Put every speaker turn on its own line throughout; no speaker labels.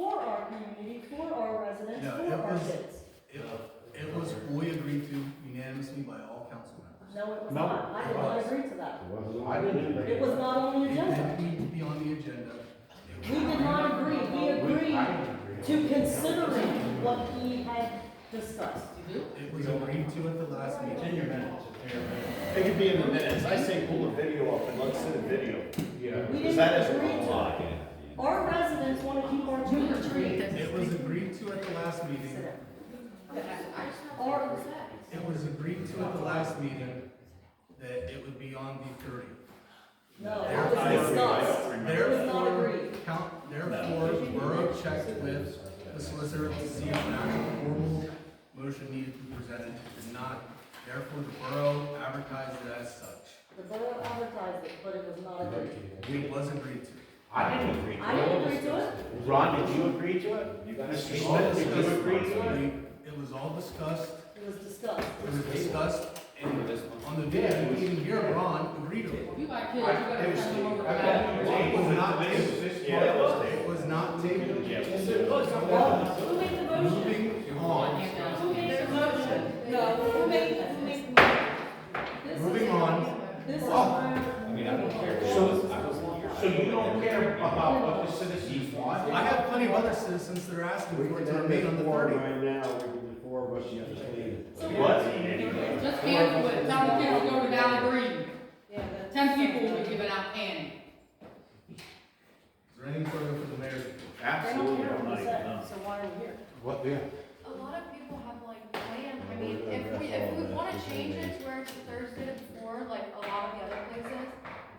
our community, for our residents,
No,
for
it
our
was-
kids.
It, it was, we agreed to unanimously by all council members.
No, it was
No,
not. I
it
did not
was.
agree to that.
I didn't
It was not on the
It
agenda.
didn't need to be on the agenda.
We did not agree. We agreed to considering what he had discussed.
It was agreed to at the last meeting.
In your minutes, in your minutes.
It could be in the minutes, I say pull the video up and let's see the video.
We
Because
didn't
that is
agree
a
to it.
lie.
Our residents want to keep our trick or treat.
It was agreed to at the last meeting.
Our,
It was agreed to at the last meeting that it would be on the thirtieth.
no, it
There- I
was
agree, I
discussed. It was not
Therefore,
agreed.
count, therefore, Borough checked with the solicitor to see if an actual formal motion needed to be presented. It did not, therefore, the Borough advertised it as such.
The borough advertised it, but it was not agreed.
We was agreed to.
I didn't agree
I
to
didn't
it.
agree to it.
Ron, did you agree to it? Mr.
All
Smith, did
discussed-
you agree to it?
we- It was all discussed,
It was discussed.
it was discussed, and on the day, we didn't hear Ron agree to it.
You got kids, you gotta send them over back.
It was not tabled.
Yeah, it was.
It was not tabled.
Yes,
Who made the motion?
Moving on.
Who made the motion? No, who made, who made the motion?
Moving on.
This is where.
Oh. I mean, I don't care.
So you don't care about what the citizens want?
I have plenty of other citizens that are asking for it to remain on the
board
thirty.
right now, we can, the four of us, you have to leave.
What?
Just cancel it, tell the kids to go to Valley Green. Ten people will be giving out candy.
Is there anything further for the mayor?
They don't
Absolutely,
care
I'm
what
not
we
even,
said,
no.
so why are we here?
What, yeah.
A lot of people have like planned, I mean, if we, if we wanna change it to where it's Thursday to before, like a lot of the other places,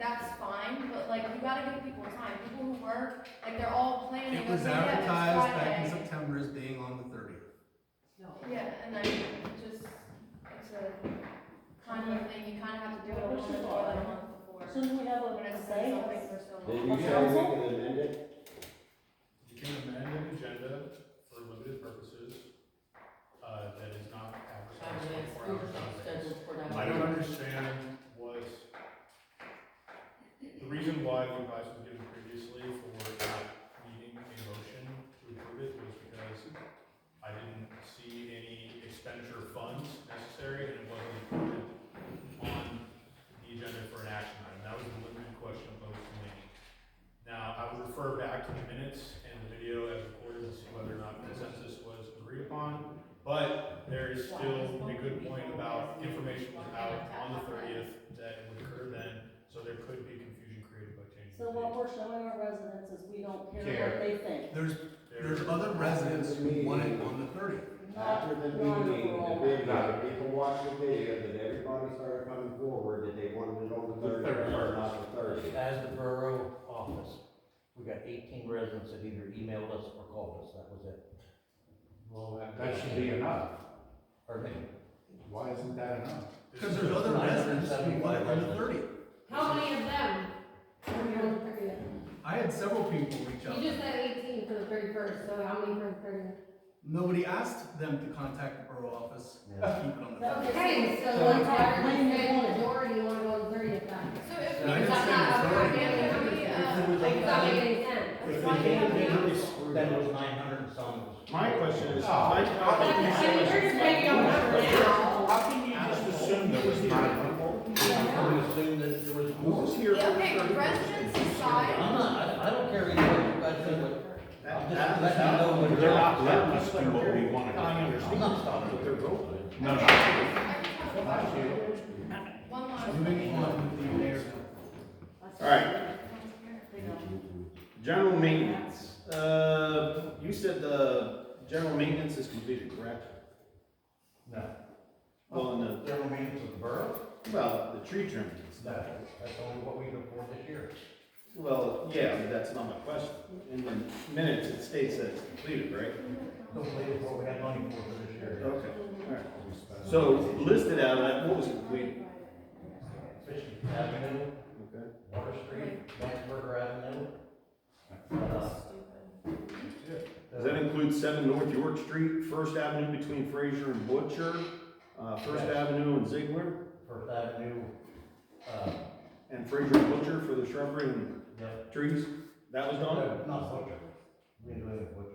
that's fine, but like, you gotta give people time, people who work, like, they're all planning.
It was
okay, yeah, it's
advertised back in
Friday.
September as being on the thirtieth.
Yeah, and then just, it's a kind of thing, you kinda have to do it a little bit more than a month before.
Shouldn't we have
When
a
it's
say?
something for so long.
Did you say we can amend it?
You can amend an agenda for limited purposes, uh, that is not advertised twenty-four hours in advance. I don't understand was, the reason why the advice was given previously for not needing a motion to approve it was because I didn't see any expenditure of funds necessary and it wasn't included on the agenda for an action item. That was the limited question posed to me. Now, I would refer back to the minutes and the video as recorded to see whether or not consensus was agreed upon. But there is still a good point about information was out on the thirtieth that would occur then, so there could be confusion created by changing.
So what we're showing our residents is we don't care
Care.
what they think.
There's,
There-
there's other residents who want it on the thirtieth.
Not
After
not
the meeting, the
overall.
video, people watched the video, that everybody started coming forward, that they wanted it on the
The
thirty,
31st.
not the thirty.
As the borough office, we got eighteen residents that either emailed us or called us, that was it.
Well, that- that should be enough.
Or me.
Why isn't that enough?
Because there's other residents who want it on the
975
thirtieth.
How many of them?
I had several people reach out.
said eighteen for the thirty-first, so how many for the thirty?
Nobody asked them to contact the borough office to keep it on the thirtieth.
Okay, so one time, when you say majority, you wanna go to thirty then?
So
I
if we,
didn't say majority.
if we, uh,
Does that make any sense?
If we didn't do this, then it was nine hundred and some.
My question is,
Oh.
Ah.
my, how
That's-
can you
I mean,
say,
you're just making up numbers now.
how can you just assume there was nine people?
We assumed that there was
Who
more.
was here for
yeah,
the thirty?
okay, residents
I'm
aside,
not, I, I don't care either, way you guys think, but I'm just letting you know what.
They're not letting us do what we want to do.
I understand. I'm not stopping.
But they're voting.
No, no.
I just have one last.
Moving on with the mayor's.
All right, general maintenance, uh, you said the general maintenance is completed, correct?
No.
Well, no,
General meetings of the borough,
well, the tree trimming and stuff.
that's, that's only what we can afford this year.
Well, yeah, but that's not my question. In the minutes, it states that it's completed, right?
Don't believe what we had money for for this year.
Okay, all right. So listed out, like, what was completed?
Fishing Avenue,
Okay.
Water Street, Landsberger Avenue. uh,
Does that include seven North York Street, First Avenue between Fraser and Butcher, uh, First
Yes.
Avenue and Ziegler,
First Avenue, uh,
and Fraser and Butcher for the shrubbery and
yep.
trees? That was done?
Not Butcher. We live